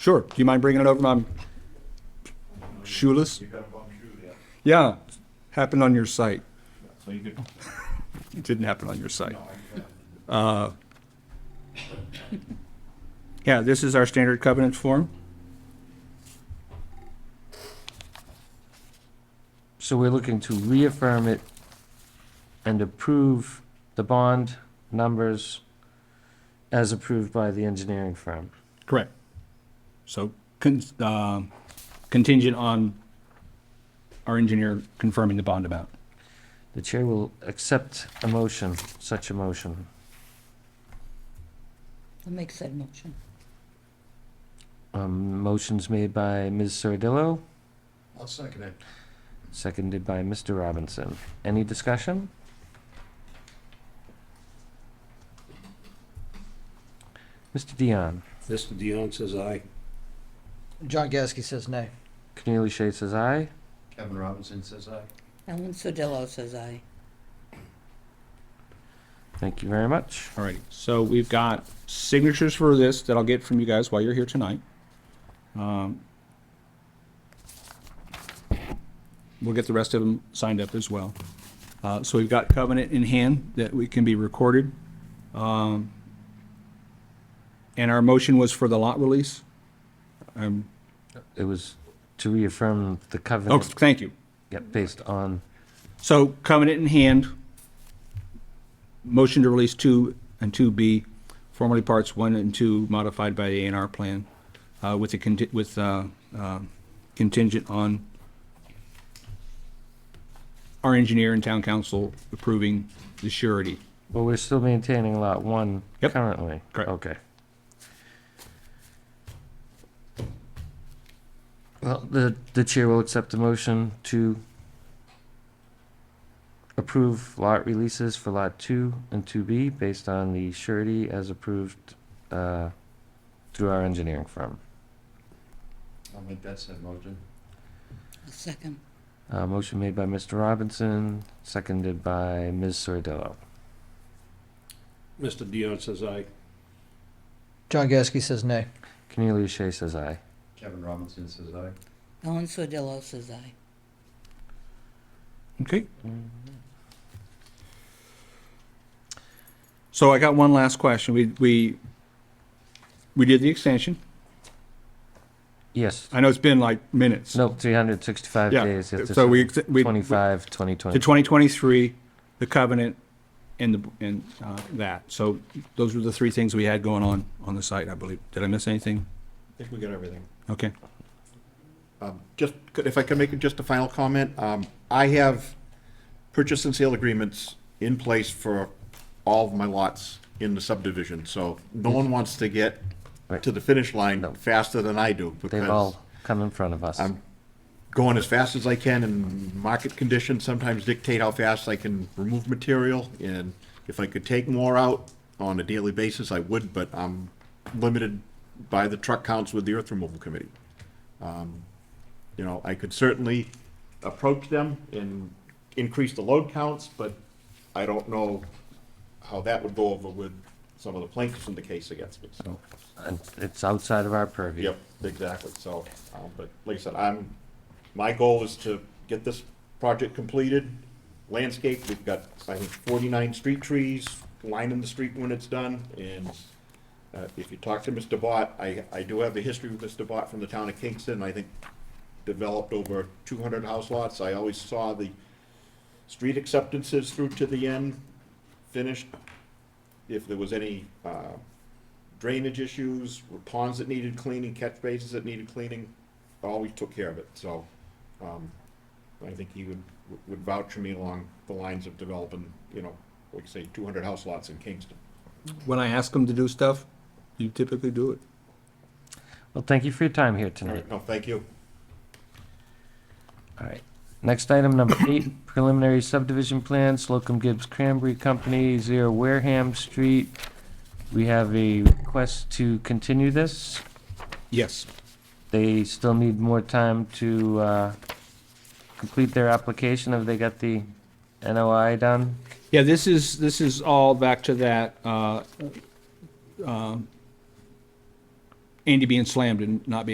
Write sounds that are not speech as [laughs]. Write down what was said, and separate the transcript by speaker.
Speaker 1: Sure. Do you mind bringing it over? I'm shoeless. Yeah, happened on your site.
Speaker 2: So you could,
Speaker 1: [laughs] It didn't happen on your site. Uh, Yeah, this is our standard covenant form.
Speaker 3: So we're looking to reaffirm it and approve the bond numbers as approved by the engineering firm.
Speaker 1: Correct. So con- uh, contingent on our engineer confirming the bond amount.
Speaker 3: The chair will accept a motion, such a motion.
Speaker 4: I'll make said motion.
Speaker 3: Um, motions made by Ms. Sardillo,
Speaker 5: I'll second it.
Speaker 3: seconded by Mr. Robinson. Any discussion? Mr. Dion,
Speaker 6: Mr. Dion says aye.
Speaker 7: John Gasky says nay.
Speaker 3: Cornelius Shea says aye.
Speaker 5: Kevin Robinson says aye.
Speaker 4: Ellen Sodillo says aye.
Speaker 3: Thank you very much.
Speaker 1: All righty. So we've got signatures for this that I'll get from you guys while you're here tonight. Um, We'll get the rest of them signed up as well. Uh, So we've got covenant in hand that we can be recorded. Um, And our motion was for the lot release?
Speaker 3: It was to reaffirm the
Speaker 1: Oh,
Speaker 3: covenant
Speaker 1: thank you.
Speaker 3: yeah, based on
Speaker 1: So covenant in hand, motion to release two and two B, formerly parts one and two modified by the A and R plan, uh, with the conti- with, uh, uh, contingent on our engineer and town council approving the surety.
Speaker 3: Well, we're still maintaining lot one
Speaker 1: Yep.
Speaker 3: currently?
Speaker 1: Correct.
Speaker 3: Okay. Well, the, the chair will accept the motion to approve lot releases for lot two and two B based on the surety as approved, uh, through our engineering firm.
Speaker 5: I'll make that said motion.
Speaker 4: A second.
Speaker 3: Uh, motion made by Mr. Robinson, seconded by Ms. Sordillo.
Speaker 6: Mr. Dion says aye.
Speaker 7: John Gasky says nay.
Speaker 3: Cornelius Shea says aye.
Speaker 5: Kevin Robinson says aye.
Speaker 4: Ellen Sodillo says aye.
Speaker 1: Okay. So I got one last question. We, we, we did the extension.
Speaker 3: Yes,
Speaker 1: I know it's been like minutes.
Speaker 3: No, 365
Speaker 1: Yeah,
Speaker 3: days. It's
Speaker 1: So we, ex- we,
Speaker 3: 25,
Speaker 1: to
Speaker 3: 2020.
Speaker 1: 2023, the covenant, and the, and uh, that. So those were the three things we had going on on the site, I believe. Did I miss anything?
Speaker 2: I think we got everything.
Speaker 1: Okay.
Speaker 2: Um, Just, could- if I could make just a final comment, um, I have purchase and sale agreements in place for all of my lots in the subdivision, so no one wants to get
Speaker 3: Mm-hmm. Right.
Speaker 2: to the finish line
Speaker 3: No.
Speaker 2: faster than I do,
Speaker 3: They've
Speaker 2: because
Speaker 3: all come in front of us.
Speaker 1: Um,
Speaker 2: I'm going as fast as I can, and market conditions sometimes dictate how fast I can remove material, and if I could take more out on a daily basis, I would, but I'm limited by the truck counts with the earth removal committee. Um, You know, I could certainly approach them and increase the load counts, but I don't know how that would go over with some of the plaintiffs in the case against me, so.
Speaker 3: And It's outside of our purview.
Speaker 2: Yep, exactly, so, um, but like I said, I'm, my goal is to get this project completed, landscape, we've got, I think, forty-nine street trees, lining the street when it's done, and uh, if you talk to Mr. Bott, I, I do have a history with Mr. Bott from the town of Kingston, I think developed over two hundred house lots, I always saw the street acceptances through to the end, finished. If there was any, uh, drainage issues, ponds that needed cleaning, catch basins that needed cleaning, always took care of it, so, um, I think he would, would vouch for me along the lines of developing, you know, like say, two hundred house lots in Kingston.
Speaker 1: When I ask them to do stuff, you typically do it.
Speaker 3: Well, thank you for your time here
Speaker 2: All
Speaker 3: tonight.
Speaker 2: right, no, thank you.
Speaker 3: All right. Next item, number eight, preliminary subdivision plan, Slocum Gibbs Cranberry Company, Zero Wareham Street. We have a request to continue this.
Speaker 1: Yes.
Speaker 3: They still need more time to uh, complete their application. Have they got the NOI done?
Speaker 1: Yeah, this is, this is all back to that, uh, um, Andy being slammed and not being